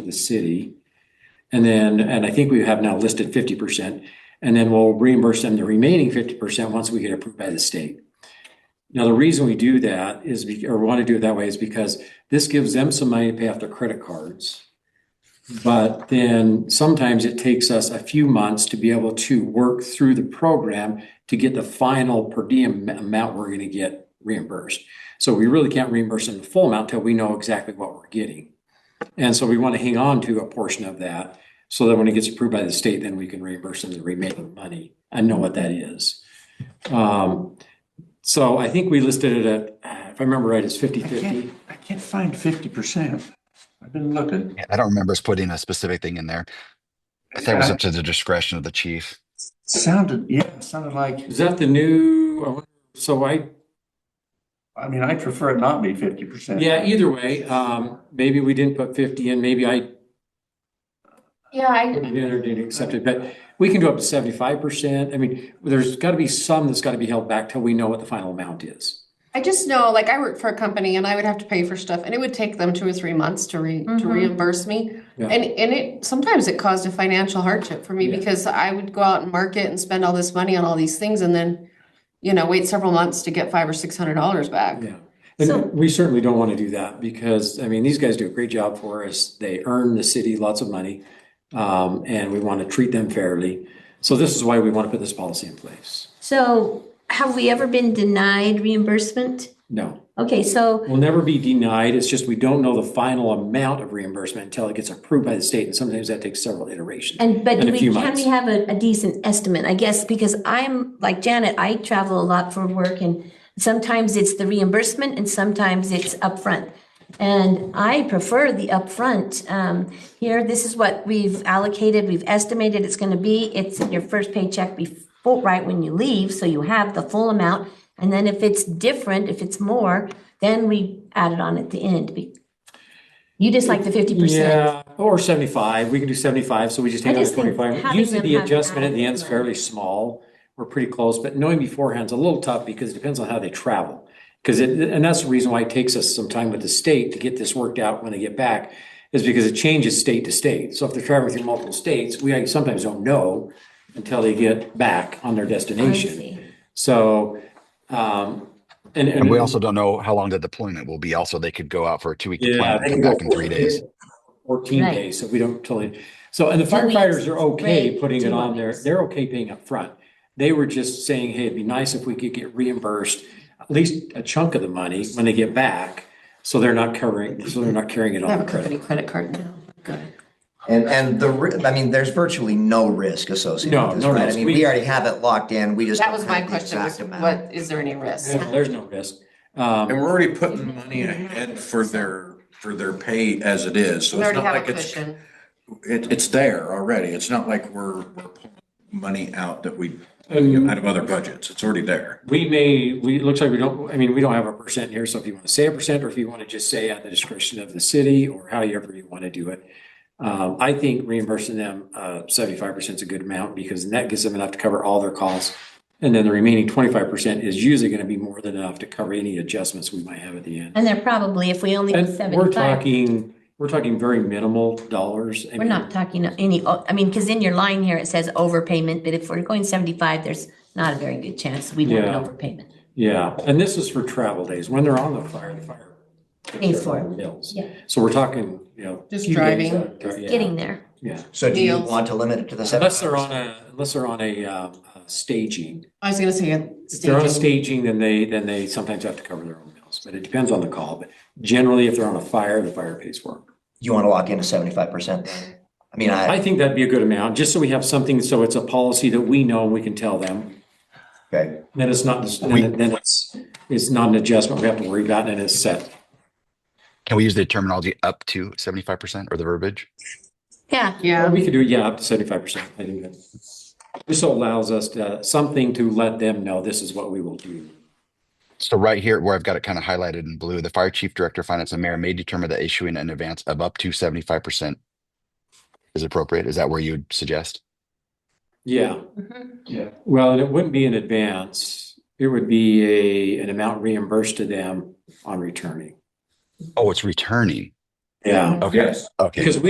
to the city. And then, and I think we have now listed fifty percent, and then we'll reimburse them the remaining fifty percent once we get approved by the state. Now, the reason we do that is, be- or want to do it that way is because this gives them some money to pay off their credit cards. But then sometimes it takes us a few months to be able to work through the program to get the final per diem am- amount we're gonna get reimbursed. So we really can't reimburse them the full amount till we know exactly what we're getting. And so we want to hang on to a portion of that so that when it gets approved by the state, then we can reimburse them the remaining money and know what that is. Um, so I think we listed it at, uh, if I remember right, it's fifty I fifty. can't, I can't find fifty percent. I've been looking. Yeah, I don't remember us putting a specific thing in there. I think it was up to the discretion of the chief. Sounded, yeah, it sounded like, Is that the new, I wonder- so I, I mean, I prefer it not be fifty percent. yeah, either way, um, maybe we didn't put fifty in, maybe I Yeah, I, didn't or didn't accept it, but we can go up to seventy-five percent. I mean, there's gotta be some that's gotta be held back till we know what the final amount is. I just know, like, I worked for a company and I would have to pay for stuff and it would take them two or three months to re, to Mhm. reimburse me. Yeah. And, and it, sometimes it caused a financial hardship for me Yeah. because I would go out and market and spend all this money on all these things and then, you know, wait several months to get five or six hundred dollars back. Yeah, So- and we certainly don't want to do that because, I mean, these guys do a great job for us. They earn the city lots of money. Um, and we want to treat them fairly. So this is why we want to put this policy in place. So have we ever been denied reimbursement? No, Okay, so, we'll never be denied. It's just we don't know the final amount of reimbursement until it gets approved by the state. And sometimes that takes several iterations. and, but In a we, few can months. we have a, a decent estimate, I guess, because I'm, like Janet, I travel a lot for work and sometimes it's the reimbursement and sometimes it's upfront. And I prefer the upfront. Um, here, this is what we've allocated, we've estimated it's gonna be. It's your first paycheck before, right when you leave, so you have the full amount. And then if it's different, if it's more, then we add it on at the end. Be- You just like the fifty percent. Yeah, or seventy-five, we can do seventy-five, so we just I take out just think twenty-five. having Usually them the have adjustment at the end is adequate- fairly small. We're pretty close, but knowing beforehand's a little tough because it depends on how they travel. Because it, and that's the reason why it takes us some time with the state to get this worked out when they get back, is because it changes state to state. So if they're traveling through multiple states, we sometimes don't know until they get back on their destination. So, um, and. And we also don't know how long the deployment will be. Also, they could go out for a two week Yeah, deployment, they and come can go back in three 14 days. Fourteen Right. days, so we don't totally, so, and the Two weeks, firefighters are okay right, putting it two on there, weeks. they're okay paying up front. They were just saying, hey, it'd be nice if we could get reimbursed at least a chunk of the money when they get back. So they're not covering, so they're not carrying it I have on a the credit. company credit card now. Good. And, and the, ri- I mean, there's virtually no risk associated No, with this, no right? I risk. mean, We- we already have it locked in, we just That don't was my have the question, was exact amount. what, is there any risk? No, There's no risk. Um, And we're already putting Mm-hmm. money ahead for their, for their pay as it is, so We it's already have not a like it's, cushion. it, it's there already, it's not like we're, we're pulling money out that we, Um, out of other budgets, it's already there. we may, we, it looks like we don't, I mean, we don't have a percent here, so if you want to say a percent, or if you want to just say at the discretion of the city, or however you want to do it. Um, I think reimbursing them, uh, seventy-five percent is a good amount, because that gives them enough to cover all their costs. And then the remaining twenty-five percent is usually going to be more than enough to cover any adjustments we might have at the end. And they're probably, if we only do And we're seventy-five, talking, we're talking very minimal dollars. I we're mean, not talking any, I mean, because in your line here, it says overpayment, but if we're going seventy-five, there's not a very good chance we want an Yeah. overpayment. Yeah, and this is for travel days, when they're on the fire, the fire. Pays for it. Meals. Yeah. So we're talking, you know. Just few days driving. out, yeah. Getting there. Yeah, So do you Deals. want to limit it to the seven? unless they're on a, unless they're on a, um, uh, staging. I was gonna say a If they're on a staging, staging. then they, then they sometimes have to cover their own meals, but it depends on the call. But generally, if they're on a fire, the fire pays for it. You want to lock in to seventy-five percent? I mean, I, I think that'd be a good amount, just so we have something, so it's a policy that we know and we can tell them. okay, Then it's not, then then it's, it's not an adjustment we have to worry about and it's set. Can we use the terminology up to 75% or the verbiage? Yeah, Well, Yeah, We could do, yeah, up to seventy-five percent. I think that this allows us to, something to let them know this is what we will do. So right here where I've got it kind of highlighted in blue, the fire chief, director, finance and mayor may determine that issuing an advance of up to 75% is appropriate. Is that where you'd suggest? Yeah. Yeah. Well, and it wouldn't be in advance. It would be a, an amount reimbursed to them on returning. Oh, it's returning. Yeah. Okay. Okay. Because we